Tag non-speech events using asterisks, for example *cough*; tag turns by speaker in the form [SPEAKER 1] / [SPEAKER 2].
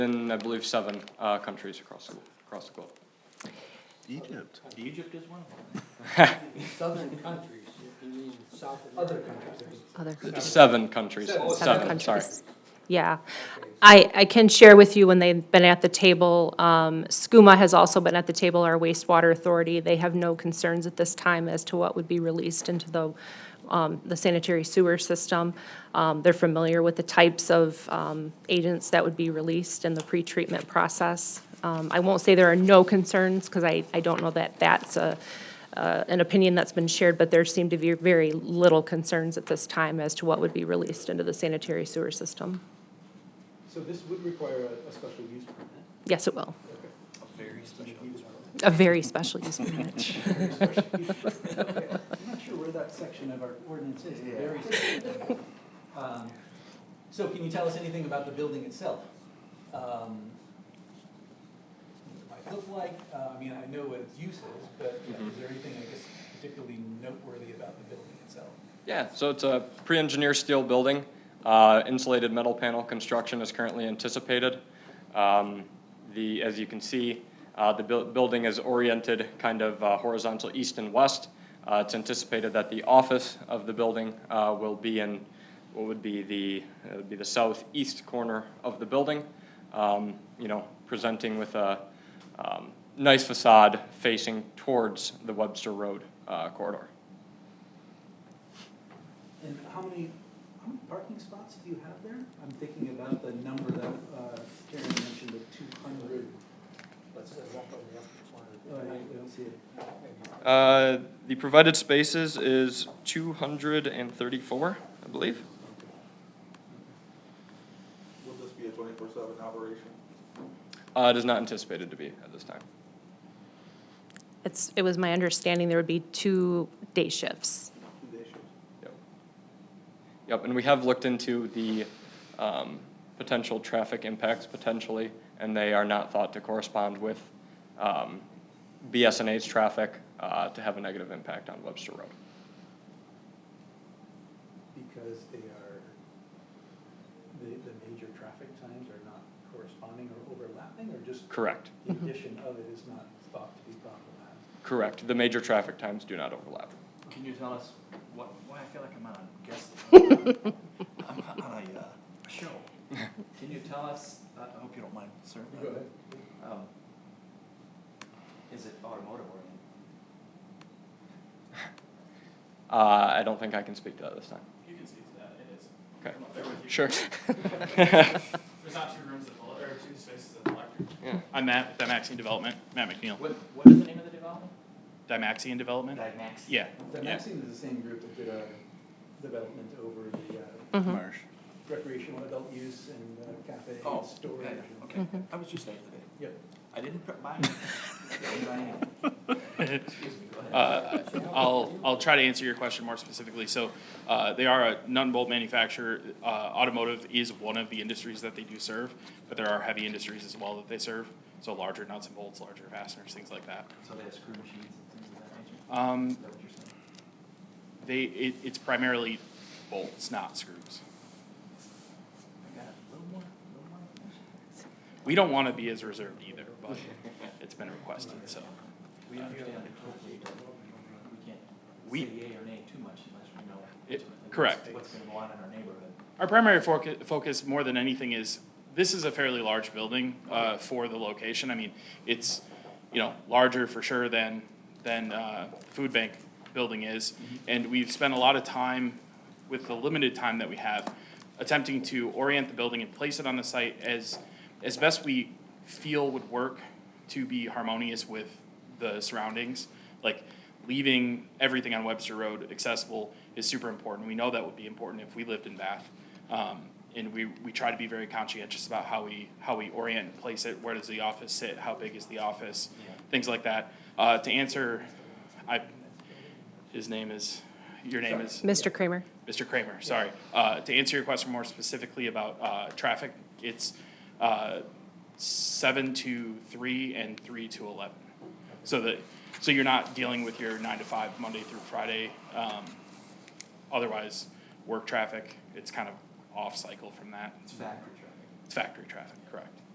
[SPEAKER 1] in, I believe, seven uh, countries across the, across the globe.
[SPEAKER 2] Egypt.
[SPEAKER 3] Egypt is one of them.
[SPEAKER 4] Southern countries, you mean South Other countries.
[SPEAKER 5] Other
[SPEAKER 1] Seven countries,
[SPEAKER 4] Seven.
[SPEAKER 1] seven, sorry.
[SPEAKER 5] countries. Yeah. I, I can share with you when they've been at the table, um, SCUMA has also been at the table, our wastewater authority. They have no concerns at this time as to what would be released into the, um, the sanitary sewer system. Um, They're familiar with the types of um, agents that would be released in the pretreatment process. Um, I won't say there are no concerns, because I, I don't know that that's a, uh, an opinion that's been shared, but there seem to be very little concerns at this time as to what would be released into the sanitary sewer system.
[SPEAKER 6] So this would require a, a special use permit?
[SPEAKER 5] Yes, it will.
[SPEAKER 3] Very special.
[SPEAKER 6] Use permit.
[SPEAKER 5] A very special use permit.
[SPEAKER 6] I'm not sure where that section of our ordinance is, the very *laughs* special. Um, So can you tell us anything about the building itself? Um, What it might look like, Uh, I mean, I know what its use is, but you know, is there anything, I guess, particularly noteworthy about the building itself?
[SPEAKER 1] Yeah, so it's a pre-engineered steel building. Uh, Insulated metal panel construction is currently anticipated. Um, The, as you can see, uh, the buil- building is oriented kind of uh, horizontal east and west. Uh, It's anticipated that the office of the building uh, will be in what would be the, it would be the southeast corner of the building, um, you know, presenting with a um, nice facade facing towards the Webster Road uh, corridor.
[SPEAKER 6] And how many, how many parking spots do you have there? I'm thinking about the number that uh, Karen mentioned, of two hundred.
[SPEAKER 4] Let's say up on the
[SPEAKER 6] Oh,
[SPEAKER 4] upper
[SPEAKER 6] I
[SPEAKER 4] corner.
[SPEAKER 6] don't see it.
[SPEAKER 4] Maybe.
[SPEAKER 1] Uh, The provided spaces is 234, I believe.
[SPEAKER 7] Will this be a twenty-four seven operation?
[SPEAKER 1] Uh, It is not anticipated to be at this time.
[SPEAKER 5] It's, it was my understanding there would be two day shifts.
[SPEAKER 7] Two day shifts.
[SPEAKER 1] Yep. Yep, and we have looked into the um, potential traffic impacts potentially, and they are not thought to correspond with um, BSNA's traffic uh, to have a negative impact on Webster Road.
[SPEAKER 6] because they are, the, the major traffic times are not corresponding or overlapping, or just
[SPEAKER 1] Correct,
[SPEAKER 6] the addition of it is not thought to be problematic?
[SPEAKER 1] correct. The major traffic times do not overlap.
[SPEAKER 3] Can you tell us what, why I feel like I'm on a guest?
[SPEAKER 6] *laughs*
[SPEAKER 3] I'm on a, uh, a show. Can you tell us, I I hope you don't mind, sir.
[SPEAKER 6] Go ahead.
[SPEAKER 3] Um, Is it automotive oriented?
[SPEAKER 1] Uh, I don't think I can speak to that this time.
[SPEAKER 8] You can see to that, it is.
[SPEAKER 1] Okay,
[SPEAKER 8] I'm up there with you. *laughs*
[SPEAKER 1] sure.
[SPEAKER 8] There's not two rooms at the, or two spaces at the electric.
[SPEAKER 1] Yeah.
[SPEAKER 8] I'm Matt, with Dymaxion Development, Matt McNeil.
[SPEAKER 3] What, what is the name of the development?
[SPEAKER 8] Dymaxion Development?
[SPEAKER 3] Dymax.
[SPEAKER 8] Yeah,
[SPEAKER 6] The
[SPEAKER 8] yeah.
[SPEAKER 6] Maxine is the same group that did our development over the uh,
[SPEAKER 2] Marsh.
[SPEAKER 6] recreational adult use and uh, cafe
[SPEAKER 3] Oh,
[SPEAKER 6] and storage.
[SPEAKER 3] okay,
[SPEAKER 6] and-
[SPEAKER 3] okay. I was just there today.
[SPEAKER 6] Yep.
[SPEAKER 3] I didn't
[SPEAKER 6] *laughs*
[SPEAKER 3] prep mine. I didn't buy anything. Excuse me, go ahead.
[SPEAKER 8] Uh, I'll, I'll try to answer your question more specifically. So uh, they are a nut and bolt manufacturer. Uh, Automotive is one of the industries that they do serve, but there are heavy industries as well that they serve. So larger nuts and bolts, larger fasteners, things like that.
[SPEAKER 3] So they have screw machines and things of that nature?
[SPEAKER 8] Um,
[SPEAKER 3] Is that what you're saying?
[SPEAKER 8] They, it, it's primarily bolts, not screws.
[SPEAKER 3] I got a little more, a little more.
[SPEAKER 8] We don't want to be as reserved either, but it's been requested, so.
[SPEAKER 3] We understand the code, we can't
[SPEAKER 8] We-
[SPEAKER 3] say yea or nay too much unless we know.
[SPEAKER 8] It-
[SPEAKER 3] ultimately what's-
[SPEAKER 8] correct.
[SPEAKER 3] What's gonna go on in our neighborhood.
[SPEAKER 8] Our primary focu- focus, more than anything, is, this is a fairly large building uh, for the location. I mean, it's, you know, larger for sure than, than uh, the food bank building is. And we've spent a lot of time, with the limited time that we have, attempting to orient the building and place it on the site as, as best we feel would work to be harmonious with the surroundings. Like, leaving everything on Webster Road accessible is super important. We know that would be important if we lived in Bath. Um, and we, we try to be very conscientious about how we, how we orient and place it, where does the office sit, how big is the office,
[SPEAKER 3] Yeah.
[SPEAKER 8] things like that. Uh, to answer, I, his name is, your name is?
[SPEAKER 5] Mr. Kramer?
[SPEAKER 8] Mr. Kramer, sorry. Uh, To answer your question more specifically about uh, traffic, it's uh, seven to three and three to eleven. So that, so you're not dealing with your nine to five, Monday through Friday. um, Otherwise, work traffic, it's kind of off-cycle from that.
[SPEAKER 3] It's factory traffic.
[SPEAKER 8] It's factory traffic, correct.